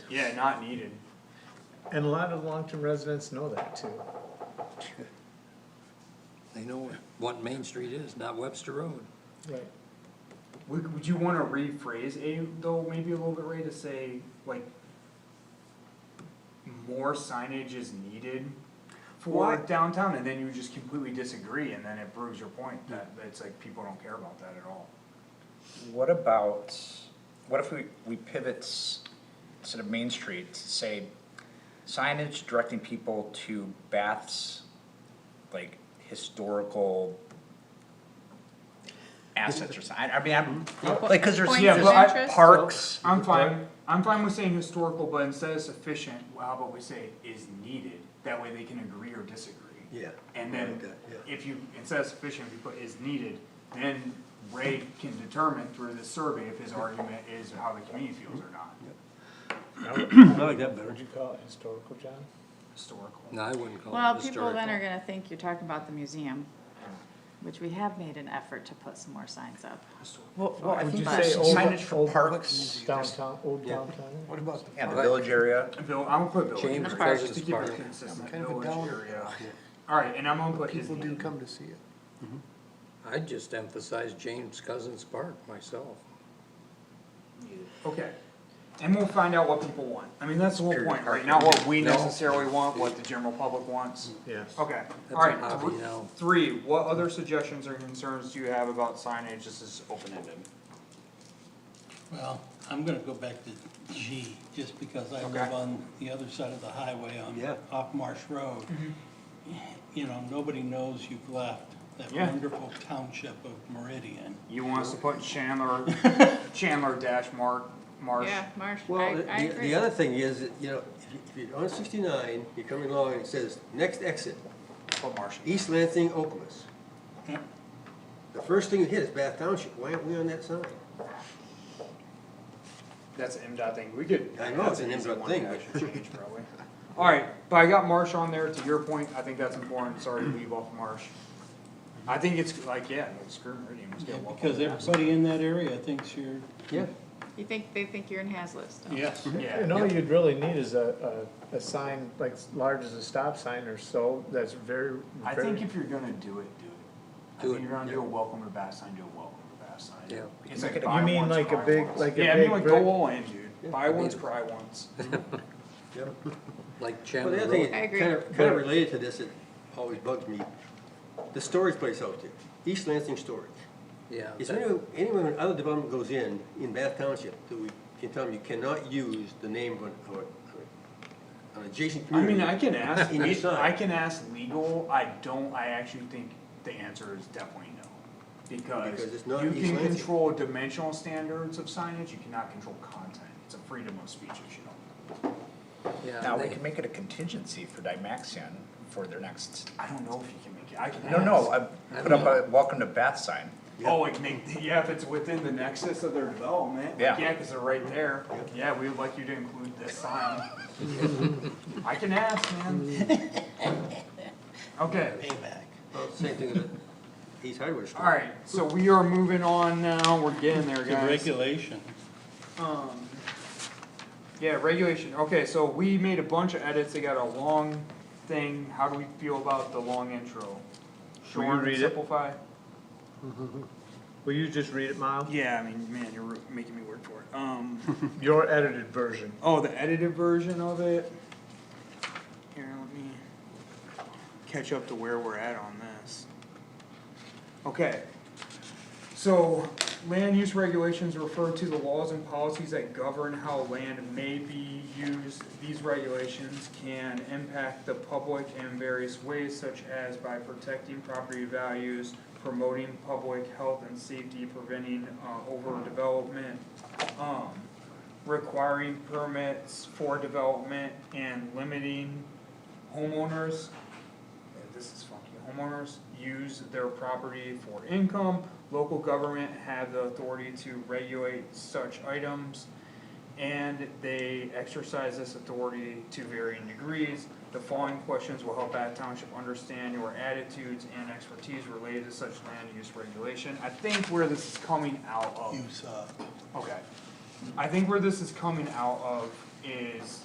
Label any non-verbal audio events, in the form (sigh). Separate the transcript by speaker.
Speaker 1: Yeah, not needed.
Speaker 2: And a lot of long-term residents know that too.
Speaker 3: They know what Main Street is, not Webster Road.
Speaker 2: Right.
Speaker 1: Would, would you wanna rephrase A though, maybe a little bit, Ray, to say like more signage is needed for
Speaker 4: Why?
Speaker 1: downtown, and then you just completely disagree, and then it proves your point that, that it's like people don't care about that at all.
Speaker 4: What about, what if we, we pivot s- instead of Main Street, to say signage directing people to Bath's, like, historical assets or something, I I mean, I'm, like, cause there's,
Speaker 5: Points
Speaker 1: Yeah,
Speaker 5: of
Speaker 1: but I-
Speaker 5: interest?
Speaker 4: parks.
Speaker 1: I'm fine, I'm fine with saying historical, but instead of sufficient, well, how about we say is needed, that way they can agree or disagree.
Speaker 6: Yeah,
Speaker 1: And
Speaker 6: I
Speaker 1: then,
Speaker 6: like that, yeah.
Speaker 1: if you, instead of sufficient, if you put is needed, then Ray can determine through the survey if his argument is how the community feels or not,
Speaker 6: I like that better.
Speaker 2: Would you call it historical, John?
Speaker 1: historical.
Speaker 3: No, I wouldn't
Speaker 6: Oh,
Speaker 3: call
Speaker 5: Well,
Speaker 3: it
Speaker 5: people then are
Speaker 3: historical.
Speaker 5: gonna think you're talking about the museum, which we have made an effort to put some more signs up.
Speaker 4: Well, well, I
Speaker 2: Would you
Speaker 4: think
Speaker 2: say old-
Speaker 4: signage for
Speaker 2: old
Speaker 4: parks,
Speaker 2: Downtown, old downtown?
Speaker 6: What about?
Speaker 4: yeah, the village area.
Speaker 1: Bill, I'm gonna put village
Speaker 3: James
Speaker 1: area,
Speaker 5: Park.
Speaker 1: just to keep
Speaker 3: Park.
Speaker 1: it consistent,
Speaker 6: Kind of a
Speaker 1: village
Speaker 6: downer.
Speaker 1: area.
Speaker 6: (laughs)
Speaker 1: Alright, and I'm gonna put is
Speaker 6: People do
Speaker 1: needed.
Speaker 6: come to see it.
Speaker 3: I'd just emphasize James Cousins Park myself.
Speaker 1: Okay, and we'll find out what people want, I mean, that's the whole
Speaker 4: Period.
Speaker 1: point, right, not what we
Speaker 3: No.
Speaker 1: necessarily want, what the general public wants.
Speaker 6: Mm.
Speaker 2: Yes.
Speaker 1: Okay,
Speaker 3: That's
Speaker 1: alright,
Speaker 3: a hobby now.
Speaker 1: three, what other suggestions or concerns do you have about signage, this is open-ended?
Speaker 7: Well, I'm gonna go back to G, just because I
Speaker 1: Okay.
Speaker 7: live on the other side of the highway
Speaker 6: Yeah.
Speaker 7: on, off Marsh Road. You know, nobody knows you've left that
Speaker 1: Yeah.
Speaker 7: wonderful township of Meridian.
Speaker 1: You want us to put Chandler,
Speaker 6: (laughs)
Speaker 1: Chandler dash Mark, Marsh?
Speaker 5: Yeah, Marsh,
Speaker 6: Well,
Speaker 5: I, I
Speaker 6: the,
Speaker 5: agree.
Speaker 6: the other thing is, that, you know, if you- if you're on sixty-nine, you're coming along and it says, next exit,
Speaker 1: Put Marsh.
Speaker 6: East Lansing, Oklamas.
Speaker 7: Yeah.
Speaker 6: The first thing that hit is Bath Township, why aren't we on that sign?
Speaker 1: That's an M dot thing, we could.
Speaker 6: I know, it's an
Speaker 1: that's
Speaker 6: M dot
Speaker 1: easy
Speaker 6: thing,
Speaker 1: one
Speaker 6: but-
Speaker 1: to actually change, probably. Alright, but I got Marsh on there, to your point, I think that's important, sorry to leave off Marsh. I think it's like, yeah, like, screw Meridian, let's
Speaker 7: Yeah,
Speaker 1: get Waffle
Speaker 7: Because
Speaker 1: House.
Speaker 7: everybody in that area thinks you're,
Speaker 6: Yeah.
Speaker 5: You think, they think you're in Hazlet still?
Speaker 7: yes,
Speaker 1: (laughs)
Speaker 2: And
Speaker 1: Yeah,
Speaker 2: all you'd really need is a, a, a sign like as large as a stop sign or so, that's very,
Speaker 1: I think
Speaker 2: very,
Speaker 1: if you're gonna do it, do it. I
Speaker 3: Do
Speaker 1: think
Speaker 3: it,
Speaker 1: you're gonna do
Speaker 3: yeah.
Speaker 1: a welcome to Bath sign, do a welcome to Bath sign.
Speaker 3: Yeah.
Speaker 1: It's like
Speaker 4: You
Speaker 1: buy
Speaker 2: mean
Speaker 1: once,
Speaker 2: like a
Speaker 1: cry
Speaker 2: big-
Speaker 1: once.
Speaker 2: like a
Speaker 1: Yeah, I mean
Speaker 2: big
Speaker 1: like
Speaker 2: brick?
Speaker 1: go all in, dude, buy
Speaker 3: I mean-
Speaker 1: once, cry once.
Speaker 6: Yep.
Speaker 3: Like
Speaker 6: Well, the
Speaker 3: Chandler
Speaker 6: other thing,
Speaker 3: Road,
Speaker 5: I agree.
Speaker 6: kind of, kind of related to this, it always bugs me, the storage place out there, East Lansing Storage.
Speaker 3: yeah.
Speaker 6: Is there any, anywhere when other development goes in, in Bath Township, that we can tell them you cannot use the name of an, of a- an adjacent
Speaker 1: I
Speaker 6: community?
Speaker 1: mean, I can ask,
Speaker 6: In your
Speaker 1: le-
Speaker 6: sign.
Speaker 1: I can ask legal, I don't, I actually think the answer is definitely no.
Speaker 6: Because
Speaker 1: Because
Speaker 6: it's not
Speaker 1: you
Speaker 6: East
Speaker 1: can
Speaker 6: Lansing.
Speaker 1: control dimensional standards of signage, you cannot control content, it's a freedom of speech issue.
Speaker 3: Yeah,
Speaker 4: Now, we
Speaker 3: they-
Speaker 4: can make it a contingency for Dymaxion for their next,
Speaker 1: I don't know if you can make it, I can ask.
Speaker 4: no, no, I put up a welcome to Bath sign.
Speaker 1: Oh, like make, yeah, if it's within the nexus of their development,
Speaker 4: Yeah.
Speaker 1: like, yeah, cause they're right there, yeah, we would like you to include this (laughs) sign. I can ask, man. Okay.
Speaker 7: payback.
Speaker 6: Well, Same thing with the East Hardware Store.
Speaker 1: Alright, so we are moving on now, we're getting there,
Speaker 7: The
Speaker 1: guys.
Speaker 7: regulation.
Speaker 1: Um, yeah, regulation, okay, so we made a bunch of edits, they got a long thing, how do we feel about the long intro?
Speaker 2: Will you
Speaker 1: Short and
Speaker 2: read it?
Speaker 1: simplify?
Speaker 2: will you just read it, Miles?
Speaker 1: Yeah, I mean, man, you're making me work for it, um.
Speaker 2: Your edited version.
Speaker 1: Oh, the edited version of it? Here, let me catch up to where we're at on this. Okay. So, land use regulations refer to the laws and policies that govern how land may be used. These regulations can impact the public in various ways, such as by protecting property values, promoting public health and safety, preventing, uh, overdevelopment, um, requiring permits for development and limiting homeowners. yeah, This is funky, homeowners use their property for income, local government have the authority to regulate such items. And they exercise this authority to varying degrees. The following questions will help Bath Township understand your attitudes and expertise related to such land use regulation. I think where this is coming out of.
Speaker 7: Use, uh,
Speaker 1: Okay. I think where this is coming out of is